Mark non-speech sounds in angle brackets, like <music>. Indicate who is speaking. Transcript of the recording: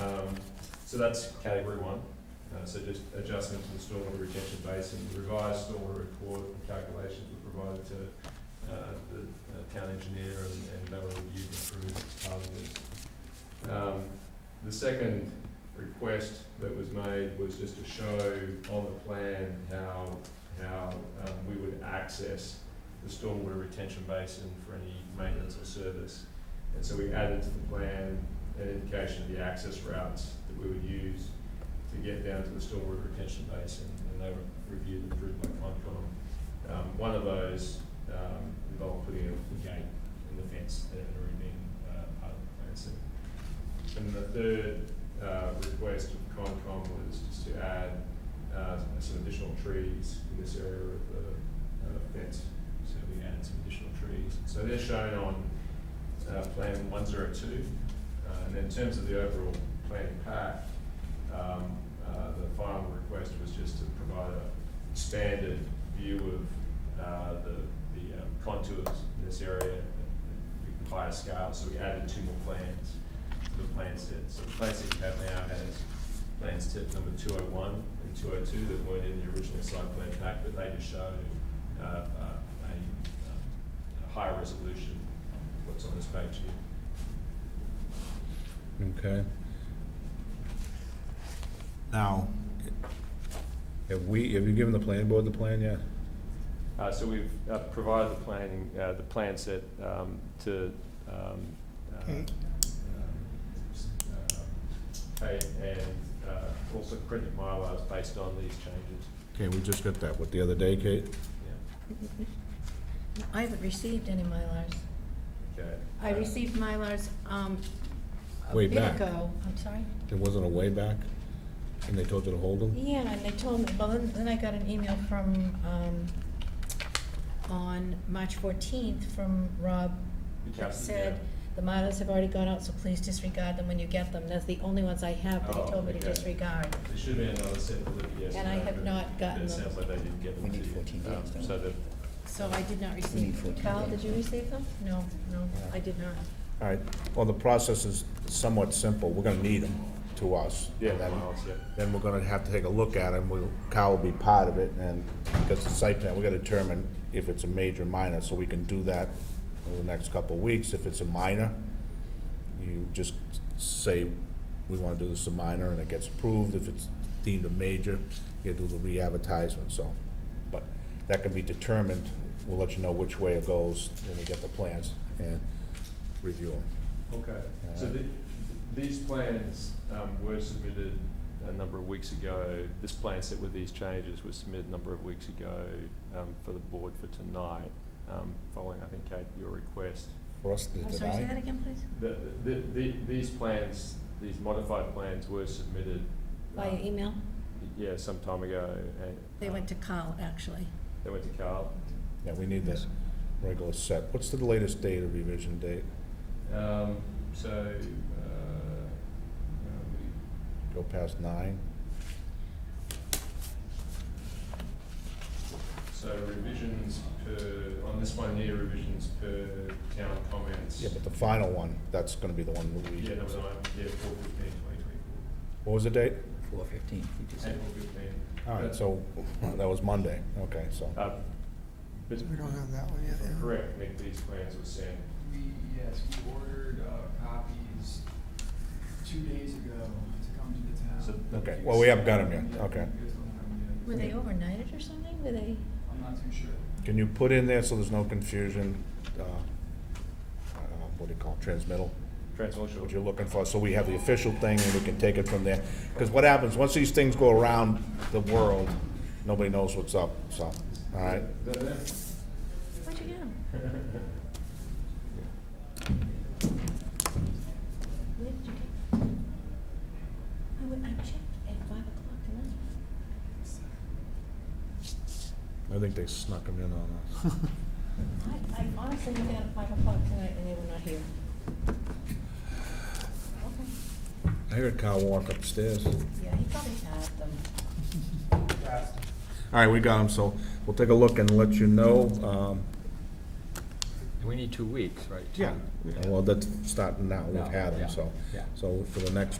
Speaker 1: Um, So that's category one, uh, so just adjustment to the stormwater retention basin, revised stormwater report and calculations were provided to, uh, the uh, town engineer and, and they were reviewed and approved as part of this. Um, the second request that was made was just to show on the plan how, how, um, we would access the stormwater retention basin for any maintenance or service. And so we added to the plan an indication of the access routes that we would use to get down to the stormwater retention basin, and they were reviewed and approved by Concom. Um, one of those, um, involved putting a gate in the fence that had already been, uh, part of the plan set. And the third, uh, request of Concom was just to add, uh, some additional trees in this area of the, uh, fence. So we added some additional trees. So they're shown on, uh, plan one zero two. Uh, and in terms of the overall planning pack, um, uh, the final request was just to provide a expanded view of, uh, the, the um, contours in this area at a higher scale, so we added two more plans to the plan set. So the plan set you have now has plans tip number two oh one and two oh two that weren't in the original site plan pack, but they just show, uh, uh, a, um, a higher resolution, of what's on this page here.
Speaker 2: Okay. Now, have we, have you given the planning board the plan yet?
Speaker 1: Uh, so we've uh, provided the planning, uh, the plan set, um, to, um, uh,
Speaker 3: Okay.
Speaker 1: um, uh, Kate and, uh, also printed Mylars based on these changes,
Speaker 2: Okay, we just got that, what, the other day, Kate?
Speaker 1: yeah,
Speaker 4: I haven't received any Mylars.
Speaker 1: okay.
Speaker 4: I
Speaker 1: Uh,
Speaker 4: received Mylars, um, a
Speaker 2: Way
Speaker 4: bit
Speaker 2: back.
Speaker 4: ago. I'm sorry?
Speaker 2: There wasn't a way back, and they told you to hold them?
Speaker 4: Yeah, and they told me, well, then then I got an email from, um, on March fourteenth from Rob. that
Speaker 1: Captain,
Speaker 4: Said,
Speaker 1: yeah.
Speaker 4: the Mylars have already gone out, so please disregard them when you get them. That's the only ones I have that
Speaker 1: Oh,
Speaker 4: he told me to
Speaker 1: okay.
Speaker 4: disregard.
Speaker 1: There Um, should be another set for the yes.
Speaker 4: And I have
Speaker 1: but
Speaker 4: not gotten
Speaker 1: It
Speaker 4: them.
Speaker 1: sounds like they didn't get them
Speaker 3: We
Speaker 1: to
Speaker 3: need
Speaker 1: you.
Speaker 3: 14 days,
Speaker 1: Um,
Speaker 3: don't
Speaker 1: So
Speaker 3: we?
Speaker 1: that,
Speaker 4: So I did not
Speaker 3: We
Speaker 4: receive
Speaker 3: need
Speaker 4: them.
Speaker 3: 14
Speaker 4: Kyle, did
Speaker 3: days.
Speaker 4: you receive them? No, no, I did not.
Speaker 2: All right, well, the process is somewhat simple, we're gonna need them to us.
Speaker 1: yeah,
Speaker 2: And then-
Speaker 1: Mylars, yeah.
Speaker 2: Then we're gonna have to take a look at them, we'll, Kyle will be part of it, and, because the site plan, we gotta determine if it's a major, minor, so we can do that over the next couple of weeks, if it's a minor, you just say, we wanna do this a minor, and it gets approved, if it's deemed a major, you do the re-advertisement, so. But that can be determined, we'll let you know which way it goes when we get the plans and review them.
Speaker 1: Okay, so
Speaker 2: Uh,
Speaker 1: the, these plans, um, were submitted a number of weeks ago. This plan set with these changes was submitted a number of weeks ago, um, for the board for tonight, um, following, I think, Kate, your request.
Speaker 2: For us to deny.
Speaker 4: I'm sorry, say that again, please?
Speaker 1: The, the, the, these plans, these modified plans were submitted.
Speaker 4: Via
Speaker 1: um,
Speaker 4: email?
Speaker 1: Yeah, some time ago, and.
Speaker 4: They
Speaker 1: um,
Speaker 4: went to Kyle, actually.
Speaker 1: They went to Carl.
Speaker 2: Yeah, we need this regular set. What's the latest date of revision date?
Speaker 1: Um, so, uh, uh,
Speaker 2: Go past nine?
Speaker 1: we- so revisions per, on this one here, revisions per town comments.
Speaker 2: Yeah, but the final one, that's gonna be the one that we,
Speaker 1: Yeah, number nine, yeah, four fifteen, twenty twenty-four,
Speaker 2: what was the date?
Speaker 3: Four fifteen, we just said.
Speaker 1: April fifteen.
Speaker 2: All right, so, that was Monday, okay, so,
Speaker 1: Uh, but,
Speaker 3: We don't have that one yet, yeah.
Speaker 1: correct, Nick, these plans were sent,
Speaker 5: We, yes, we ordered uh, copies two days ago to come to the town.
Speaker 1: So-
Speaker 2: okay, well, we haven't got them yet,
Speaker 5: Yeah,
Speaker 2: okay.
Speaker 5: you guys don't have 'em
Speaker 4: Were
Speaker 5: yet.
Speaker 4: they overnighted or something? Were they?
Speaker 5: I'm not too sure.
Speaker 2: Can you put in there so there's no confusion, uh, I don't know, what do you call it, transmittal?
Speaker 1: transmission.
Speaker 2: what you're looking for, so we have the official thing and we can take it from there. Because what happens, once these things go around the world, nobody knows what's up, so, all right?
Speaker 4: Where'd you get them?
Speaker 1: <laughs>
Speaker 4: Where did you get them? I went, I checked at five o'clock tonight.
Speaker 2: I think they snuck them in on us. <laughs>
Speaker 4: I, I honestly went down at five o'clock tonight and they were not here. Okay.
Speaker 2: I heard Kyle walk upstairs. All
Speaker 4: Yeah, he probably had them.
Speaker 2: right, we got him, so we'll take a look and let you know. um,
Speaker 6: We need two weeks, right?
Speaker 2: Well, that's starting now, we've
Speaker 6: No,
Speaker 2: had
Speaker 6: yeah,
Speaker 2: him, so.
Speaker 6: yeah.
Speaker 2: So for the next